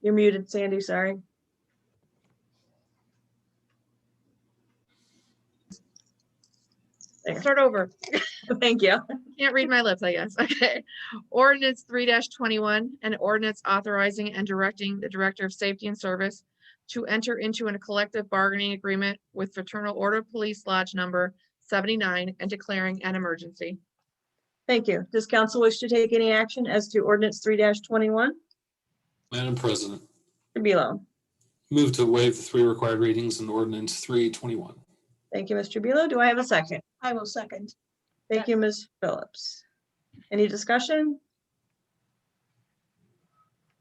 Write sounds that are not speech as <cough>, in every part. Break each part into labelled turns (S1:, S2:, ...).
S1: You're muted, Sandy, sorry. <laughs> There.
S2: Start over.
S1: Thank you.
S2: Can't read my lips, I guess. <laughs> Okay. Ordinance three twenty-one, an ordinance authorizing and directing the Director of Safety and Service to enter into a collective bargaining agreement with Fraternal Order Police Lodge Number seventy-nine and declaring an emergency.
S1: Thank you. Does council wish to take any action as to ordinance three twenty-one?
S3: Madam President,
S1: Tribilo.
S3: move to waive the three required readings in ordinance three twenty-one.
S1: Thank you, Ms. Tribilo. Do I have a second?
S4: I will second.
S1: Thank you, Ms. Phillips. Any discussion?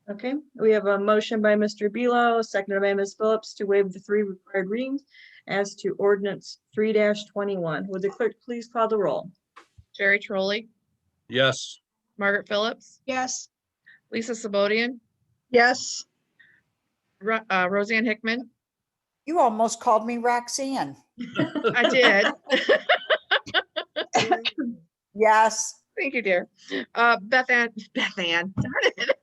S1: Okay, we have a motion by Mr. Bealow, seconded by Ms. Phillips to waive the three required readings as to ordinance three twenty-one. Would the clerk please call the roll?
S2: Jerry Trolley,
S5: yes,
S2: Margaret Phillips,
S4: Yes.
S2: Lisa Sabodian,
S4: Yes.
S2: Ro- uh, Roseanne Hickman.
S6: You almost called me Roxanne.
S7: <laughs>
S2: I did.
S6: Yes.
S2: Thank you, dear. Uh, Beth Ann, Beth Ann, darn it.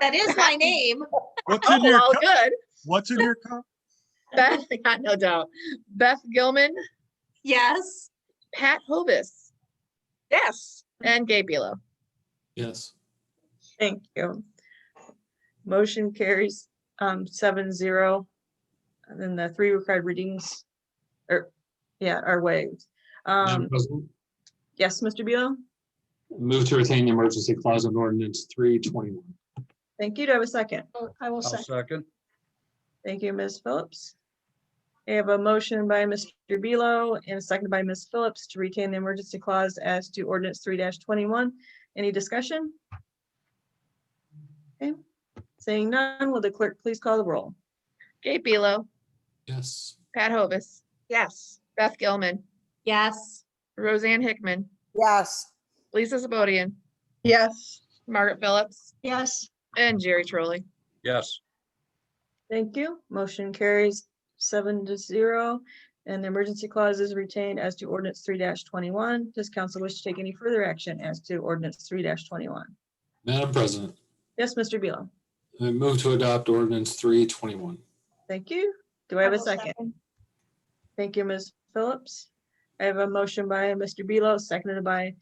S8: That is
S6: <laughs>
S8: my name.
S7: What's
S2: Oh,
S7: in your,
S2: well,
S7: cup?
S2: good.
S7: what's in your cup?
S2: Beth, <laughs> got no doubt. Beth Gilman,
S8: Yes.
S2: Pat Hovis,
S8: Yes.
S2: and Gabe Belo.
S3: Yes,
S1: Thank you. Motion carries um seven zero. And then the three required readings or, yeah, are waived.
S3: Madam
S1: Um,
S3: President,
S1: yes, Mr. Bealow?
S3: move to retain the emergency clause in ordinance three twenty-one.
S1: Thank you. Do I have a second?
S4: I will
S5: I'll
S4: second.
S5: second,
S1: Thank you, Ms. Phillips. I have a motion by Mr. Bealow and a second by Ms. Phillips to retain the emergency clause as to ordinance three twenty-one. Any discussion? Okay, seeing none, will the clerk please call the roll?
S2: Gabe Belo,
S3: Yes,
S2: Pat Hovis,
S8: Yes.
S2: Beth Gilman,
S8: Yes.
S2: Roseanne Hickman,
S6: Yes.
S2: Lisa Sabodian,
S4: Yes.
S2: Margaret Phillips,
S4: Yes.
S2: and Jerry Trolley.
S5: yes,
S1: Thank you. Motion carries seven to zero. And the emergency clause is retained as to ordinance three twenty-one. Does council wish to take any further action as to ordinance three twenty-one?
S3: Madam President,
S1: Yes, Mr. Bealow.
S3: I move to adopt ordinance three twenty-one.
S1: Thank you. Do I have a
S4: will
S1: second? Thank you, Ms. Phillips. I have a motion by Mr. Bealow, seconded by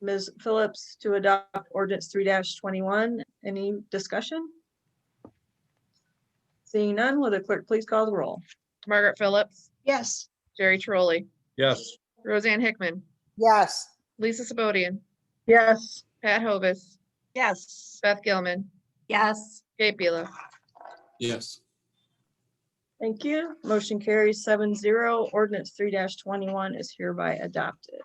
S1: Ms. Phillips to adopt ordinance three twenty-one. Any discussion? Seeing none, will the clerk please call the roll?
S2: Margaret Phillips,
S4: Yes.
S2: Jerry Trolley,
S5: yes,
S2: Roseanne Hickman,
S6: Yes.
S2: Lisa Sabodian,
S4: Yes.
S2: Pat Hovis,
S8: Yes.
S2: Beth Gilman,
S8: Yes.
S2: Gabe Belo.
S3: Yes,
S1: Thank you. Motion carries seven zero. Ordinance three twenty-one is hereby adopted.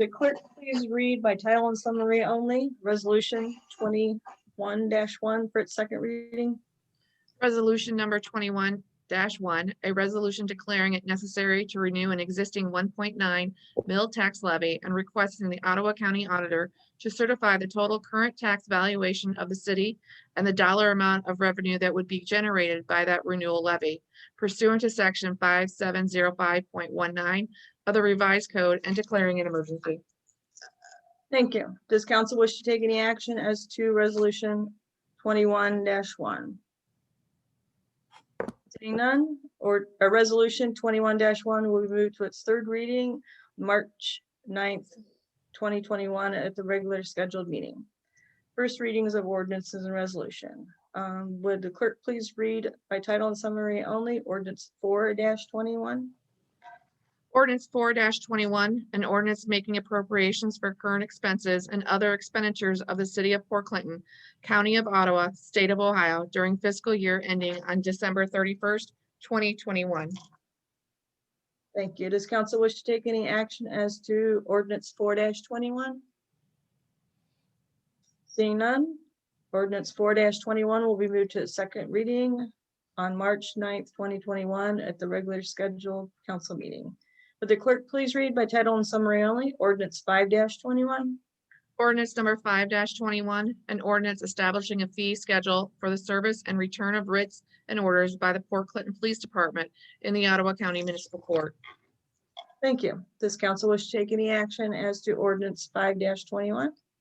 S1: The clerk, please read by title and summary only, resolution twenty-one one for its second reading.
S2: Resolution number twenty-one one, a resolution declaring it necessary to renew an existing one point nine mill tax levy and requesting the Ottawa County Auditor to certify the total current tax valuation of the city and the dollar amount of revenue that would be generated by that renewal levy pursuant to section five seven zero five point one nine of the revised code and declaring an emergency.
S1: Thank you. Does council wish to take any action as to resolution twenty-one one? Seeing none, or a resolution twenty-one one will be moved to its third reading, March 9th, twenty twenty-one at the regular scheduled meeting. First readings of ordinances and resolution. Um, would the clerk please read by title and summary only, ordinance four twenty-one?
S2: Ordinance four twenty-one, an ordinance making appropriations for current expenses and other expenditures of the city of Port Clinton, county of Ottawa, state of Ohio during fiscal year ending on December thirty-first, twenty twenty-one.
S1: Thank you. Does council wish to take any action as to ordinance four twenty-one? Seeing none, ordinance four twenty-one will be moved to its second reading on March 9th, twenty twenty-one at the regular scheduled council meeting. Would the clerk please read by title and summary only, ordinance five twenty-one?
S2: Ordinance number five twenty-one, an ordinance establishing a fee schedule for the service and return of writs and orders by the Port Clinton Police Department in the Ottawa County Municipal Court.
S1: Thank you. Does council wish to take any action as to ordinance five twenty-one?